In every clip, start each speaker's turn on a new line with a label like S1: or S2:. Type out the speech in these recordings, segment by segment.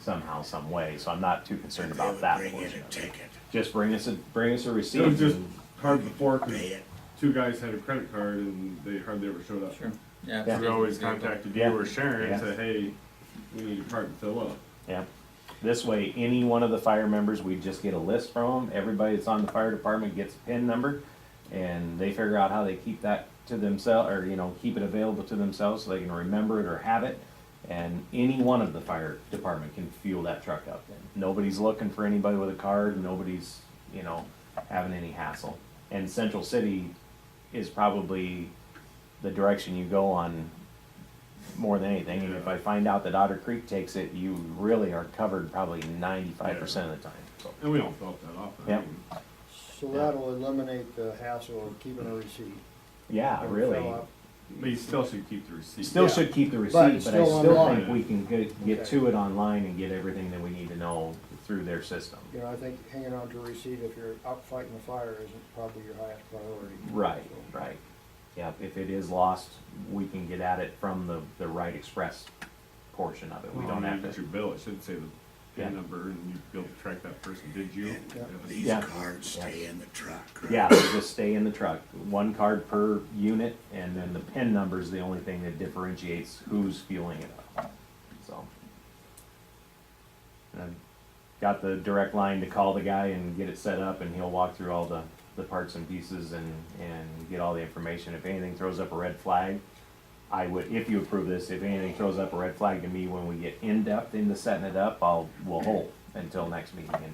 S1: somehow, some way, so I'm not too concerned
S2: If they
S1: about
S2: would
S1: that
S2: Bring in
S1: portion
S2: a
S1: of it.
S2: ticket,
S1: Just bring us a, bring us a receipt.
S3: It was just
S1: and-
S3: hard before 'cause
S2: pay it.
S3: two guys had a credit card and they hardly ever showed up.
S4: Sure. Yeah.
S1: Yeah.
S3: We always contacted you
S1: Yeah.
S3: or Sharon
S1: Yeah.
S3: and said, hey, we need a card to fill up.
S1: Yeah. This way, any one of the fire members, we just get a list from them. Everybody that's on the fire department gets a PIN number, and they figure out how they keep that to themselves, or, you know, keep it available to themselves so they can remember it or have it. And any one of the fire department can fuel that truck up then. Nobody's looking for anybody with a card, nobody's, you know, having any hassle. And Central City is probably the direction you go on more than anything. And if I find out that Otter Creek takes it, you really are covered probably ninety-five percent of the time. So,
S3: And we don't fill up that often. I
S1: Yep.
S3: mean,
S5: So that'll eliminate the hassle of keeping a receipt.
S1: Yeah,
S5: Don't
S1: Ah, really.
S5: fill up.
S3: But you still should keep the receipt.
S1: Still
S5: Yeah.
S1: should keep the receipt,
S5: But
S1: but I
S5: it's
S1: still
S5: still online.
S1: think we can get, get
S5: Okay.
S1: to it online and get everything that we need to know through their system.
S5: You know, I think hanging on to a receipt if you're out fighting a fire isn't probably your highest priority.
S1: Right, right. Yeah, if it is lost, we can get at it from the, the Wright Express portion of it. We
S3: Well,
S1: don't
S3: when
S1: have
S3: you get
S1: to.
S3: your bill, it should say the
S1: Yeah.
S3: PIN number and you'd be able to track that person, did you?
S2: And
S3: Yeah.
S2: These
S1: Yeah.
S2: cards stay in the truck, right?
S1: Yeah, they just stay in the truck. One card per unit, and then the PIN number is the only thing that differentiates who's fueling it up. So. And I've got the direct line to call the guy and get it set up, and he'll walk through all the, the parts and pieces and, and get all the information. If anything throws up a red flag, I would, if you approve this, if anything throws up a red flag to me when we get in-depth into setting it up, I'll, we'll hold until next meeting and,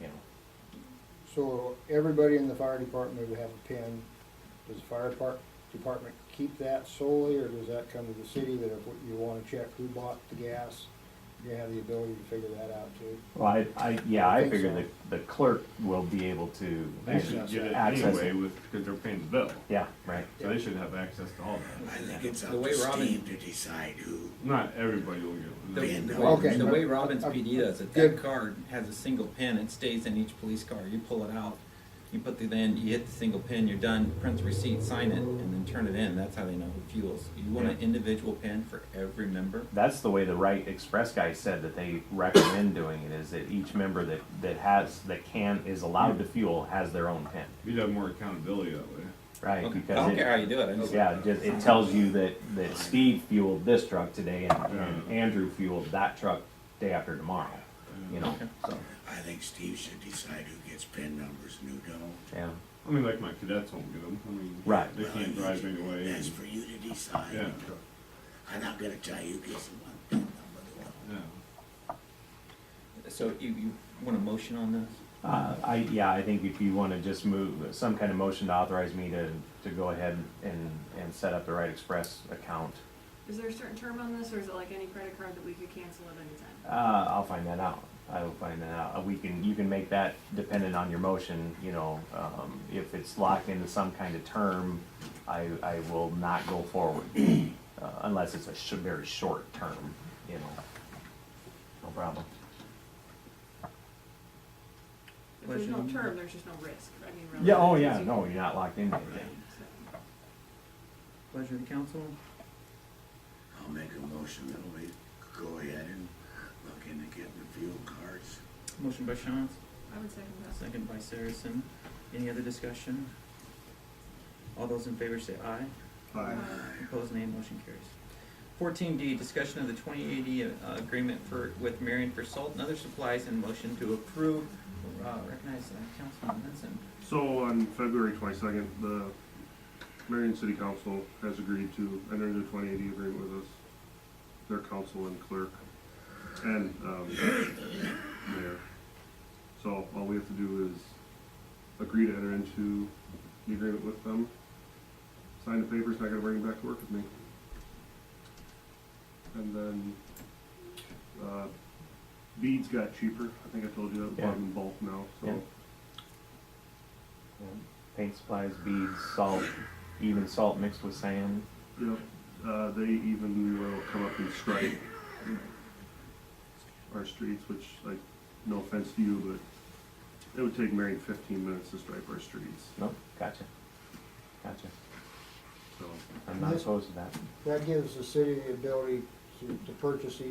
S1: you know,
S5: So everybody in the fire department would have a pin. Does the fire depart, department keep that solely, or does that come to the city that if you wanna check who bought the gas, you have the ability to figure that out too?
S1: Well, I, I, yeah, I
S5: Think
S1: figure
S5: so.
S1: that the clerk will be able to.
S3: They should get it
S1: Access it.
S3: anyway with, because they're paying the bill.
S1: Yeah, right.
S3: So they should have access to all that.
S2: I think it's up
S4: The way
S2: to
S4: Robin-
S2: Steve to decide who.
S3: Not everybody will
S4: The,
S3: get
S2: Pin
S3: it.
S4: the,
S2: number.
S4: way,
S5: Okay.
S4: the way Robbins PD does it, that
S5: Good.
S4: card has a single pin. It stays in each police car. You pull it out, you put the then you hit the single pin. You're done. Print the receipt, sign it, and then turn it in. That's how they know who fuels. You want an
S1: Yeah.
S4: individual pin for every member.
S1: That's the way the Wright Express guy said that they recommend doing it, is that each member that, that has, that can, is allowed to fuel has their own pin,
S3: You'd have more accountability that way.
S1: right?
S4: Okay. I don't
S1: Because
S4: care how
S1: it,
S4: you do it. I just,
S1: yeah, it just, it tells you that, that Steve fueled this truck today and, and
S4: Mm.
S3: Yeah.
S1: Andrew fueled that truck day after tomorrow, you know, so,
S2: I think Steve should decide who gets pin numbers and who don't.
S1: yeah.
S3: I mean, like my cadets won't get them. I mean,
S1: Right.
S3: they can't drive anyway.
S2: That's
S3: and-
S2: for you to
S3: Yeah,
S2: decide. I'm not gonna tell you who gets the one pin number. who don't.
S3: yeah.
S4: so you, you want a motion on this?
S1: Uh, I, yeah, I think if you wanna just move, some kind of motion to authorize me to, to go ahead and, and set up the Right Express account.
S6: Is there a certain term on this, or is it like any credit card that we could cancel at any time?
S1: Uh, I'll find that out. I will find that out. Uh, We can, you can make that dependent on your motion, you know, um, if it's locked into some kind of term, I, I will not go forward. Uh, unless it's a sh- very short term, you know. No problem.
S6: If there's no
S4: Question.
S6: term, there's just no risk, I mean, really.
S1: Yeah, oh yeah,
S6: because you-
S1: no, you're not locked into
S6: Right,
S1: anything.
S6: so.
S4: Pleasure of the council.
S2: I'll make a motion that we go ahead and look into getting the fuel cards.
S4: Motion by Shantz,
S6: I would second that.
S4: second by Saracen. Any other discussion? All those in favor say aye.
S6: Um,
S4: Opposed, nay. Motion carries. Fourteen D, discussion of the twenty eighty uh, agreement for, with Marion for salt and other supplies and motion to approve. Uh, Recognize uh, Councilman Vincent.
S7: So on February twenty-second, the Marion City Council has agreed to enter into twenty eighty agreement with us, their council and clerk, and, um, mayor. So all we have to do is agree to enter into the agreement with them, sign the papers, and I gotta bring them back to work with me. And then, uh, beads got cheaper, I think I told you that, bought 'em in bulk now,
S1: Yeah.
S7: so.
S1: Yeah. Paint supplies, beads, salt, even salt mixed with sand.
S7: Yep, uh, they even will come up and stripe our streets, which, like, no offense to you, but it would take Marion fifteen minutes to stripe our streets,
S1: No, gotcha. Gotcha.
S7: so.
S1: I'm not opposed to that.
S5: That gives the city the ability to, to purchase these